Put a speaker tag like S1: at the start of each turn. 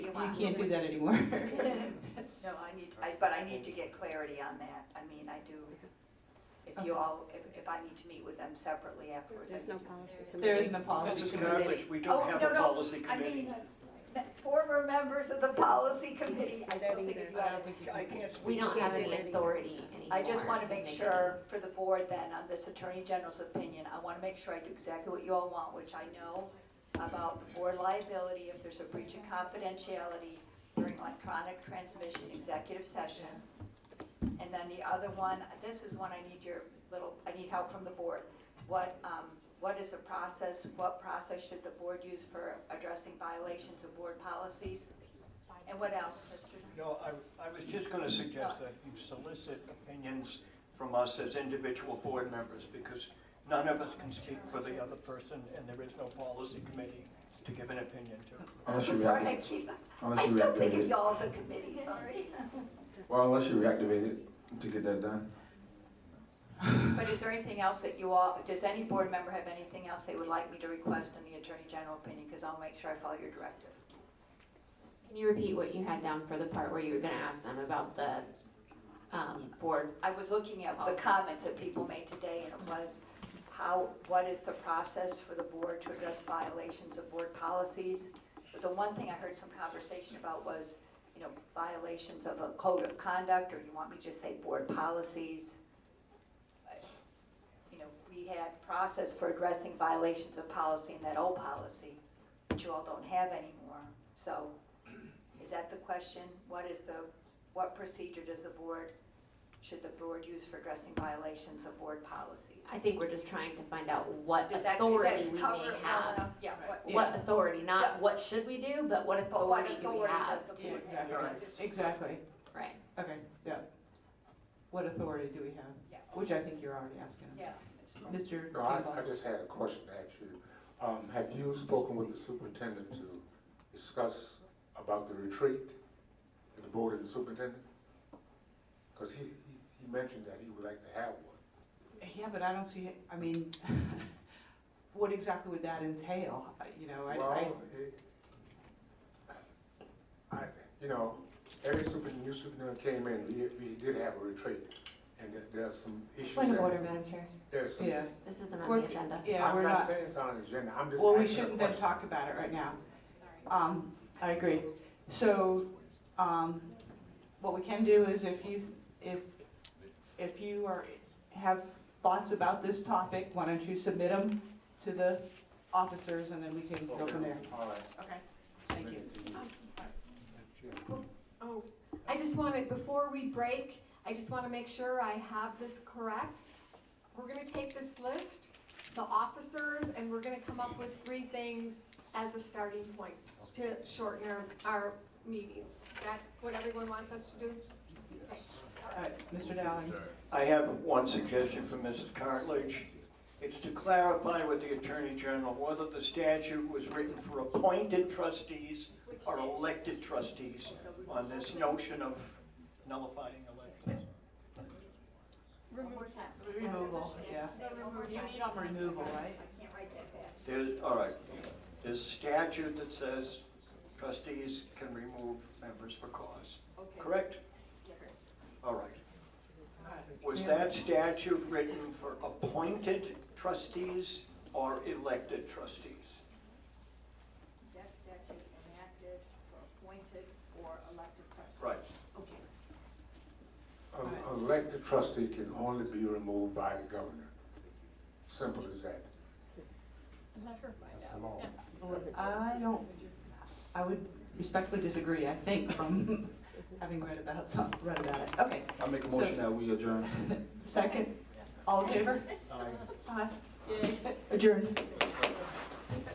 S1: flat.
S2: can't do that anymore.
S1: No, I need, I, but I need to get clarity on that. I mean, I do, if you all, if, if I need to meet with them separately afterwards. I
S3: There's no
S1: do.
S3: policy committee.
S2: There isn't a
S4: Mrs.
S2: policy committee.
S4: Knappich, we
S1: Oh,
S4: don't have
S1: no,
S4: a
S1: no,
S4: policy
S1: I
S4: committee.
S1: mean, me- former members of the policy committee, I
S3: do
S1: still
S3: that
S1: think
S3: either.
S1: you
S2: I
S1: ought
S2: don't think you
S4: I
S2: can.
S4: can't speak.
S5: We don't
S3: can't
S5: have
S3: do
S5: any
S3: that either.
S5: authority anymore.
S1: I just want to
S5: so
S1: make
S5: they
S1: sure for the board then, on this Attorney General's opinion, I want to make sure I do exactly what you all want, which I know about the board liability if there's a breach of confidentiality during electronic transmission executive session. And then the other one, this is one I need your little, I need help from the board. What, um, what is the process, what process should the board use for addressing violations of board policies? And what else, Mr.?
S4: No, I, I was just gonna suggest that you solicit opinions from us as individual board members, because none of us can speak for the other person, and there is no policy committee to give an opinion to.
S6: Unless you
S1: Sorry, I
S6: reactivate,
S1: keep, I
S6: unless you
S1: still think
S6: reactivate,
S1: of
S6: it.
S1: y'all as a committee, sorry.
S6: well, unless you reactivate it to get that done.
S1: But is there anything else that you all, does any board member have anything else they would like me to request in the Attorney General opinion? Because I'll make sure I follow your directive.
S5: Can you repeat what you had down for the part where you were gonna ask them about the, um, board?
S1: I was looking at the comments that people made today, and it was how, what is the process for the board to address violations of board policies? But the one thing I heard some conversation about was, you know, violations of a code of conduct, or you want me to just say board policies? You know, we had process for addressing violations of policy in that old policy, which you all don't have anymore. So is that the question? What is the, what procedure does the board should the board use for addressing violations of board policies?
S5: I think we're just trying to find out what
S1: Does that, does
S5: authority
S1: that
S5: we
S1: cover
S5: may
S1: it well
S5: have.
S1: enough? Yeah, what,
S5: What authority,
S1: Yeah.
S5: not what should we do, but what
S1: but what
S5: authority do we
S1: authority
S5: have
S1: does the
S5: to,
S1: board have?
S2: Exactly. Exactly,
S5: right?
S2: okay, yeah. What authority do we have?
S1: Yeah.
S2: Which I think you're already asking.
S1: Yeah.
S2: Mr.
S7: No, I, I
S2: Kimball.
S7: just had a question to ask you. Um, have you spoken with the superintendent to discuss about the retreat and the board and the superintendent? Because he, he, he mentioned that he would like to have one.
S2: Yeah, but I don't see, it- I mean, what exactly would that entail? I- You know, I, I,
S7: Well, it, I, you know, every super, new superintendent came in, we, we did have a retreat, and there- there's some issues.
S5: Point of
S7: that-
S5: order, Madam Chair.
S7: There's some.
S2: yeah,
S5: This isn't on
S2: We're-
S5: the agenda.
S2: yeah,
S7: I'm
S2: we're
S7: not
S2: not,
S7: saying it's on the agenda, I'm just.
S2: well, we
S7: asking a
S2: shouldn't then
S7: question.
S2: talk about it right now. Um, I agree. So, um, what we can do is if you, if, if you are, have thoughts about this topic, why don't you submit them to the officers and then we can go from there.
S7: All right.
S2: Okay, thank you.
S8: Oh, I just wanted, before we break, I just want to make sure I have this correct. We're going to take this list, the officers, and we're going to come up with three things as a starting point to shorten our, our meetings. Is that what everyone wants us to do?
S2: All right, Mr. Dowling.
S4: I have one suggestion from Mrs. Cartledge. It's to clarify with the Attorney General whether the statute was written for appointed trustees or elected trustees on this notion of nullifying elections.
S2: Removal, yeah. You need on removal, right?
S4: There's, all right, there's a statute that says trustees can remove members for cause, correct? All right. Was that statute written for appointed trustees or elected trustees?
S1: That statute enacted for appointed or elected persons.
S4: Right,
S1: Okay.
S7: An elected trustee can only be removed by the governor. Simple as that.
S8: Let her find
S7: Come on.
S2: I don't, I would respectfully disagree, I think, from having read about some, read about it. Okay,
S6: I make a
S2: So-
S6: motion that we adjourn.
S2: second, all in favor?
S4: Aye.
S2: Aye. Adjourned.